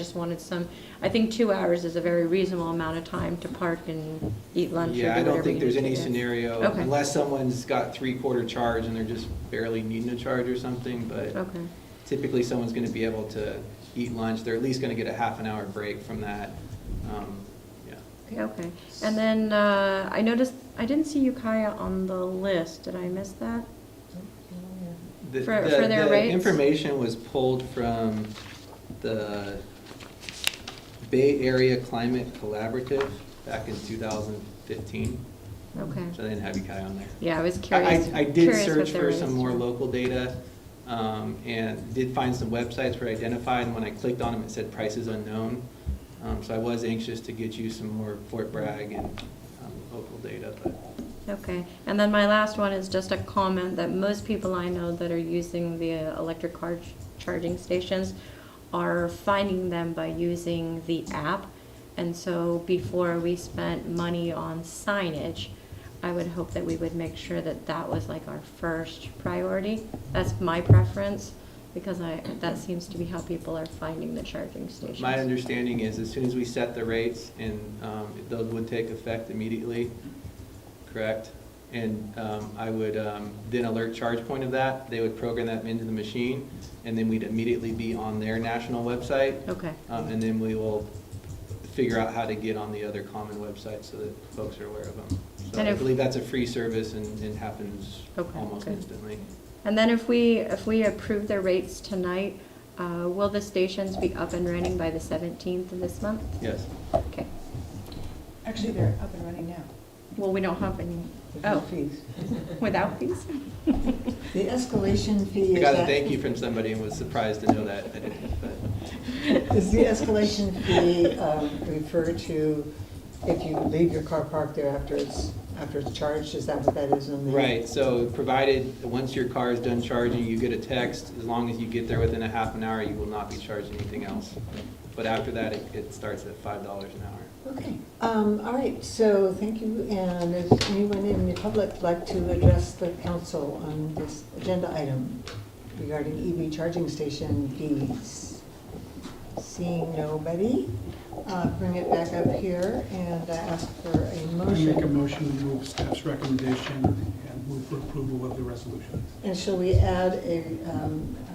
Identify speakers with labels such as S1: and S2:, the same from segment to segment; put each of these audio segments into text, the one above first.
S1: Just wanted some, I think two hours is a very reasonable amount of time to park and eat lunch or do
S2: Yeah, I don't
S1: whatever you
S2: think there's
S1: need to
S2: any
S1: do.
S2: scenario,
S1: Okay.
S2: unless someone's got three-quarter charge and they're just barely needing a charge or something, but
S1: Okay,
S2: typically someone's gonna be able to eat lunch, they're at least gonna get a half an hour break from that. Um, Yeah,
S1: Okay, okay. And then uh, I noticed, I didn't see Ukiah on the list. Did I miss that?
S2: The-
S1: For-
S2: the-
S1: for their
S2: the
S1: rates?
S2: Information was pulled from the Bay Area Climate Collaborative back in 2015,
S1: Okay.
S2: so I didn't have Ukiah on there.
S1: Yeah, I was
S2: I-
S1: curious.
S2: I I did
S1: curious what
S2: search
S1: their
S2: for some
S1: rates
S2: more
S1: were.
S2: local data, um, and did find some websites were identified, and when I clicked on them, it said prices unknown. Um, So I was anxious to get you some more Fort Bragg and um, local data, but
S1: Okay, and then my last one is just a comment that most people I know that are using the uh, electric car ch- charging stations are finding them by using the app. And so before we spent money on signage, I would hope that we would make sure that that was like our first priority. That's my preference, because I, that seems to be how people are finding the charging stations.
S2: My understanding is as soon as we set the rates and um, those would take effect immediately, correct? And um, I would um, then alert ChargePoint of that. They would program that into the machine and then we'd immediately be on their national website.
S1: Okay,
S2: Um, And then we will figure out how to get on the other common websites so that folks are aware of them. So
S1: And
S2: I
S1: if-
S2: believe that's a free service and and happens
S1: Okay,
S2: almost
S1: good.
S2: instantly.
S1: And then if we, if we approve the rates tonight, uh, will the stations be up and running by the 17th of this month?
S2: Yes.
S1: Okay.
S3: Actually, they're up and running now.
S1: Well, we don't have any, oh,
S3: Fees.
S1: without fees?
S3: The escalation fee
S2: I
S3: is
S2: got a
S3: at-
S2: thank you from somebody and was surprised to know that. I didn't, but.
S3: Is the escalation fee um, referred to if you leave your car parked there after it's, after it's charged? Is that what that is in the?
S2: Right, so provided, once your car is done charging, you get a text, as long as you get there within a half an hour, you will not be charged anything else. But after that, it, it starts at five dollars an hour.
S3: Okay, um, all right, so thank you, and if anyone in the public like to address the council on this agenda item regarding EV charging station fees? Seeing nobody, uh, bring it back up here and I ask for a
S4: I make a
S3: motion.
S4: motion to move staff's recommendation and move for approval of the resolution.
S3: And shall we add a, um, uh,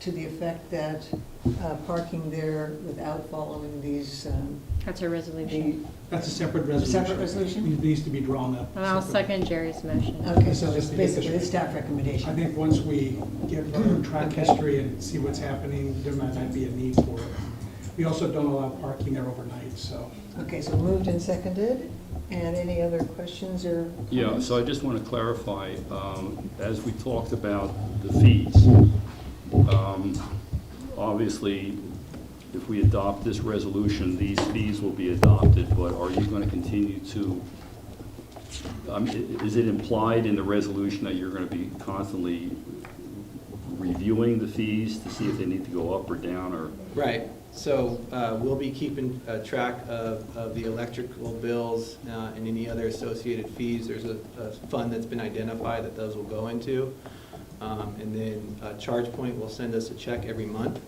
S3: to the effect that uh, parking there without following these, um,
S1: That's a
S3: the,
S1: resolution.
S4: That's a separate resolution.
S3: Separate resolution?
S4: It needs to be drawn up.
S1: And I'll
S4: separately.
S1: second Jerry's motion.
S3: okay, so it's basically the staff recommendation.
S4: I think once we get further track history and see what's happening, there might not be a need for it. We also don't allow parking there overnight, so.
S3: Okay, so moved and seconded, and any other questions or comments?
S5: Yeah, so I just want to clarify, um, as we talked about the fees, um, obviously, if we adopt this resolution, these fees will be adopted, but are you going to continue to, um, i- is it implied in the resolution that you're going to be constantly reviewing the fees to see if they need to go up or down, or?
S2: Right, so, uh, we'll be keeping, uh, track of, of the electrical bills, uh, and any other associated fees. There's a, a fund that's been identified that those will go into. Um, and then, uh, ChargePoint will send us a check every month,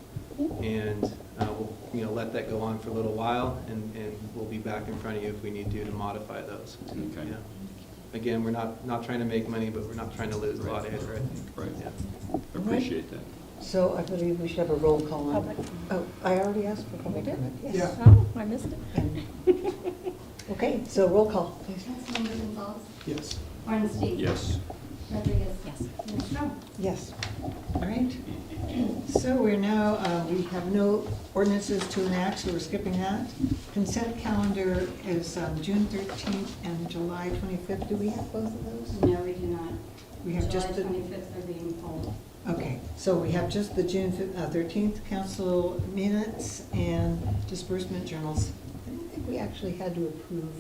S2: and, uh, we'll, you know, let that go on for a little while, and, and we'll be back in front of you if we need to to modify those.
S5: Okay.
S2: Yeah. Again, we're not, not trying to make money, but we're not trying to lose a lot either, I think.
S5: Right.
S2: Yeah.
S5: I appreciate that.
S3: So I believe we should have a roll call on.
S1: Public.
S3: Oh, I already asked for public
S1: We did?
S3: comment, yes.
S4: Yeah.
S1: Oh, I missed it.
S3: And- Okay, so roll call, please.
S6: Councilmember Gonzalez,
S4: Yes.
S6: Ornstein.
S5: Yes.
S6: Rodriguez. Yes. Strong.
S3: Yes. All right. So we're now, uh, we have no ordinances to enact, so we're skipping that. Consent calendar is um, June 13th and July 25th. Do we have both of those?
S6: No, we do not.
S3: We have just the-
S6: July twenty-fifth are being pulled.
S3: Okay, so we have just the June fif- uh, 13th council minutes and disbursement journals. I don't think we actually had to approve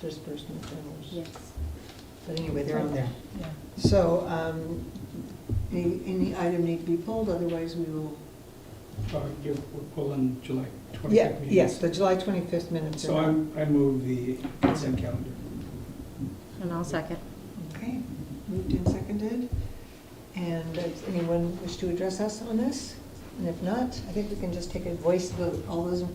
S3: disbursement journals.
S6: Yes.
S3: But anyway, they're on there. So um, any any item need to be pulled, otherwise we will.
S4: Uh, you're- We're pulling July 25th.
S3: Yeah,
S4: meeting.
S3: yes, the July 25th minutes
S4: So
S3: are on.
S4: I, I move the consent calendar.
S1: And I'll second.
S3: Okay, moved and seconded. And does anyone wish to address us on this? And if not, I think we can just take a voice vote. All those in